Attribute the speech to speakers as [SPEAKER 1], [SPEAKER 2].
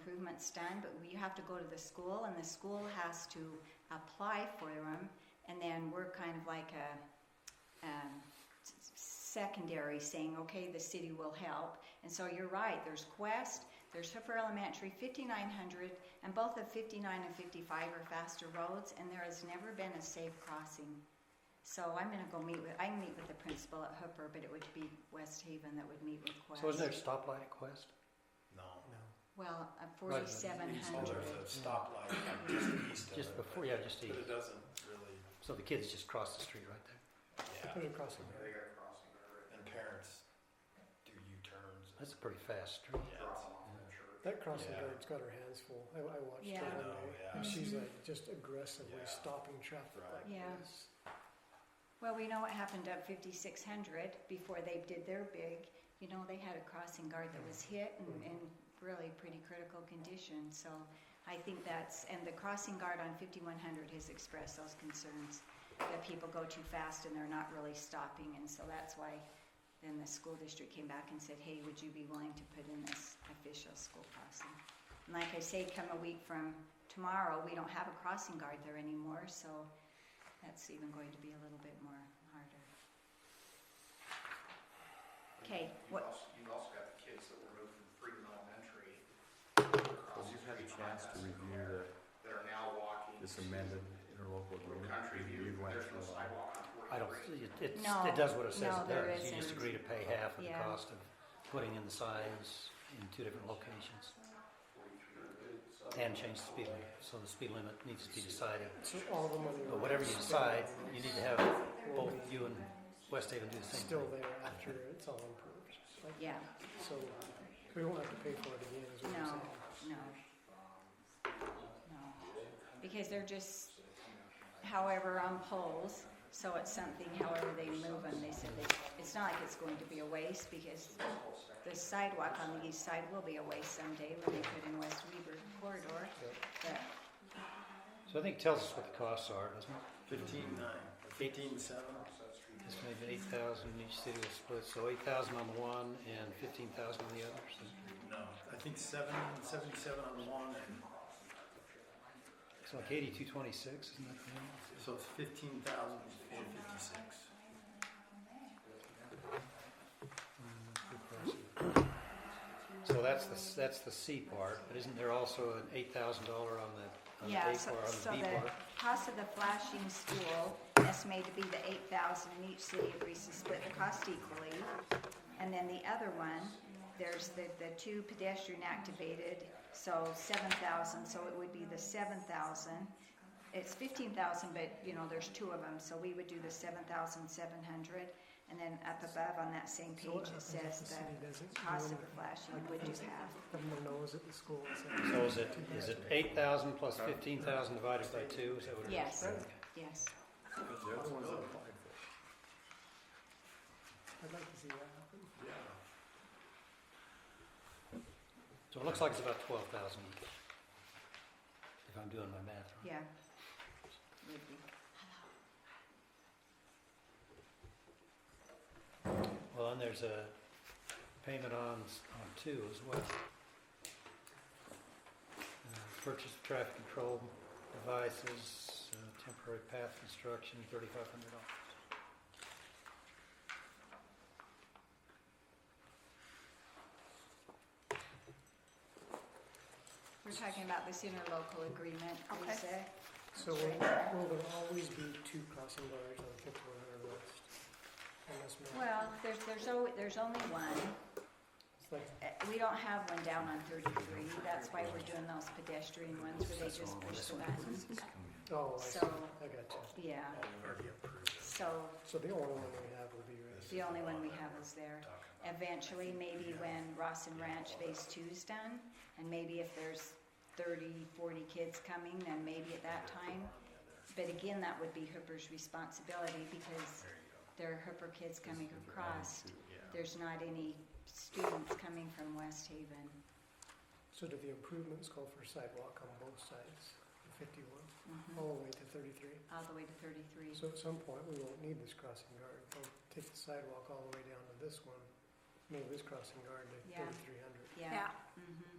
[SPEAKER 1] implements done, but you have to go to the school, and the school has to apply for them, and then we're kind of like a, um, s- s- secondary saying, okay, the city will help. And so you're right, there's Quest, there's Hooper Elementary, 5900, and both of 59 and 55 are faster roads, and there has never been a safe crossing. So I'm gonna go meet with, I can meet with the principal at Hooper, but it would be West Haven that would meet with Quest.
[SPEAKER 2] So isn't there a stoplight at Quest?
[SPEAKER 3] No.
[SPEAKER 1] Well, a
[SPEAKER 2] Right, but
[SPEAKER 1] forty-seven
[SPEAKER 3] Oh,
[SPEAKER 1] hundred.
[SPEAKER 3] there's a stoplight just east of it.
[SPEAKER 2] Just before, yeah, just
[SPEAKER 3] But
[SPEAKER 2] east.
[SPEAKER 3] it doesn't really,
[SPEAKER 2] So the kids just cross the street right there.
[SPEAKER 3] yeah.
[SPEAKER 2] Put it across the road.
[SPEAKER 3] They got crossing guard right there. And parents do U-turns.
[SPEAKER 2] That's a pretty fast street.
[SPEAKER 3] Yeah, it's-
[SPEAKER 4] That crossing
[SPEAKER 3] Yeah.
[SPEAKER 4] guard's got her hands full. I, I watched
[SPEAKER 1] Yeah. Mm-hmm.
[SPEAKER 4] her
[SPEAKER 3] I
[SPEAKER 4] one
[SPEAKER 3] know,
[SPEAKER 4] day,
[SPEAKER 3] yeah.
[SPEAKER 4] and she's like just aggressively
[SPEAKER 3] Yeah.
[SPEAKER 4] stopping traffic.
[SPEAKER 3] Right.
[SPEAKER 4] Like
[SPEAKER 1] Yeah.
[SPEAKER 4] this.
[SPEAKER 1] Well, we know what happened at fifty-six hundred before they did their big. You know, they had a crossing guard that was hit and in really pretty critical condition, so I think that's, and the crossing guard on fifty-one hundred has expressed those concerns that people go too fast and they're not really stopping, and so that's why then the school district came back and said, hey, would you be willing to put in this official school crossing? And like I say, come a week from tomorrow, we don't have a crossing guard there anymore, so that's even going to be a little bit more harder. Okay,
[SPEAKER 5] You've
[SPEAKER 1] what,
[SPEAKER 5] also, you've also got the kids that were moved from Freedom Elementary.
[SPEAKER 6] Well,
[SPEAKER 5] across
[SPEAKER 6] you've
[SPEAKER 5] the
[SPEAKER 6] had a
[SPEAKER 5] street from
[SPEAKER 6] chance to
[SPEAKER 5] us
[SPEAKER 6] review the,
[SPEAKER 5] That are now walking.
[SPEAKER 6] this amended interlocal
[SPEAKER 5] Little
[SPEAKER 6] agreement.
[SPEAKER 5] country view,
[SPEAKER 6] You
[SPEAKER 5] but
[SPEAKER 6] went
[SPEAKER 5] there's no
[SPEAKER 6] through all-
[SPEAKER 5] sidewalk on
[SPEAKER 2] I don't,
[SPEAKER 5] 43.
[SPEAKER 2] it, it's,
[SPEAKER 1] No,
[SPEAKER 2] it does what it says
[SPEAKER 1] no,
[SPEAKER 2] it
[SPEAKER 1] there
[SPEAKER 2] does. You just
[SPEAKER 1] isn't.
[SPEAKER 2] agree to pay half of the
[SPEAKER 1] Yeah.
[SPEAKER 2] cost of putting in the signs in two different locations. And change the speed limit, so the speed limit needs to be decided.
[SPEAKER 4] So all the money.
[SPEAKER 2] But whatever you decide, you need to have both you and West Haven do the
[SPEAKER 4] It's
[SPEAKER 2] same
[SPEAKER 4] still
[SPEAKER 2] thing.
[SPEAKER 4] there after it's all improved. Like,
[SPEAKER 1] yeah,
[SPEAKER 4] So we won't have to pay for it again. Is what
[SPEAKER 1] no,
[SPEAKER 4] I'm saying.
[SPEAKER 1] no. No, because they're just however on poles, so it's something, however they move them, they said they, it's not like it's going to be a waste because the sidewalk on the east side will be a waste someday when they put in West Weber corridor, but
[SPEAKER 2] So I think it tells us what the costs are, doesn't it?
[SPEAKER 3] Fifteen-nine, fifteen-seven.
[SPEAKER 2] It's maybe eight thousand, each city will split, so eight thousand on the one and fifteen thousand on the other, so.
[SPEAKER 3] No, I think seven, seventy-seven on one and,
[SPEAKER 2] It's like eighty-two twenty-six, isn't that the number?
[SPEAKER 3] so it's fifteen thousand four fifty-six.
[SPEAKER 2] So that's the, that's the C part, but isn't there also an eight thousand dollar on the, on the A
[SPEAKER 1] Yeah,
[SPEAKER 2] part,
[SPEAKER 1] so, so
[SPEAKER 2] on the B
[SPEAKER 1] the
[SPEAKER 2] part?
[SPEAKER 1] cost of the flashing school estimated to be the eight thousand, and each city agrees to split the cost equally. And then the other one, there's the, the two pedestrian activated, so seven thousand, so it would be the seven thousand. It's fifteen thousand, but, you know, there's two of them, so we would do the seven thousand seven hundred. And then up above on that same
[SPEAKER 4] So what
[SPEAKER 1] page, it
[SPEAKER 4] happens if
[SPEAKER 1] says
[SPEAKER 4] the city doesn't
[SPEAKER 1] the cost of
[SPEAKER 4] do
[SPEAKER 1] the flashing
[SPEAKER 4] Like,
[SPEAKER 1] would do
[SPEAKER 4] is-
[SPEAKER 1] half.
[SPEAKER 4] Everyone knows at the school. it's like-
[SPEAKER 2] So is it, is it eight thousand plus fifteen thousand divided by two, is that what it is?
[SPEAKER 1] Yes, yes.
[SPEAKER 3] The other one's applied for.
[SPEAKER 4] I'd like to see that happen.
[SPEAKER 2] So it looks like it's about twelve thousand each, if I'm doing my math right.
[SPEAKER 1] Yeah. Would be.
[SPEAKER 2] Well, and there's a payment on, s- on two as well. Uh, Purchase of traffic control devices, uh, temporary path construction, thirty-five hundred dollars.
[SPEAKER 1] We're talking about this interlocal agreement,
[SPEAKER 7] Okay.
[SPEAKER 1] Lisa.
[SPEAKER 4] So will, will there always be two crossing guards on fifty-one hundred west? Unless more.
[SPEAKER 1] Well, there's, there's always, there's only one.
[SPEAKER 4] It's like
[SPEAKER 1] Uh, We don't have one down on thirty-three, that's why we're doing those pedestrian ones where they just push the buttons.
[SPEAKER 4] Oh, I see.
[SPEAKER 1] So,
[SPEAKER 4] I got you.
[SPEAKER 1] yeah,
[SPEAKER 3] We've already approved it.
[SPEAKER 1] so
[SPEAKER 4] So the only one we have will be right.
[SPEAKER 1] the only one we have is there. Eventually, maybe when Ross and Ranch Phase Two's done, and maybe if there's 30, 40 kids coming, then maybe at that time. But again, that would be Hooper's responsibility because there are Hooper kids coming across. There's not any students coming from West Haven.
[SPEAKER 4] So do the improvements call for sidewalk on both sides, of fifty-one,
[SPEAKER 1] Mhm.
[SPEAKER 4] all the way to thirty-three?
[SPEAKER 1] all the way to 33.
[SPEAKER 4] So at some point, we won't need this crossing guard. We'll take the sidewalk all the way down to this one, move this crossing guard to
[SPEAKER 1] Yeah.
[SPEAKER 4] thirty-three hundred.
[SPEAKER 1] Yeah.
[SPEAKER 7] Yeah,
[SPEAKER 1] hmm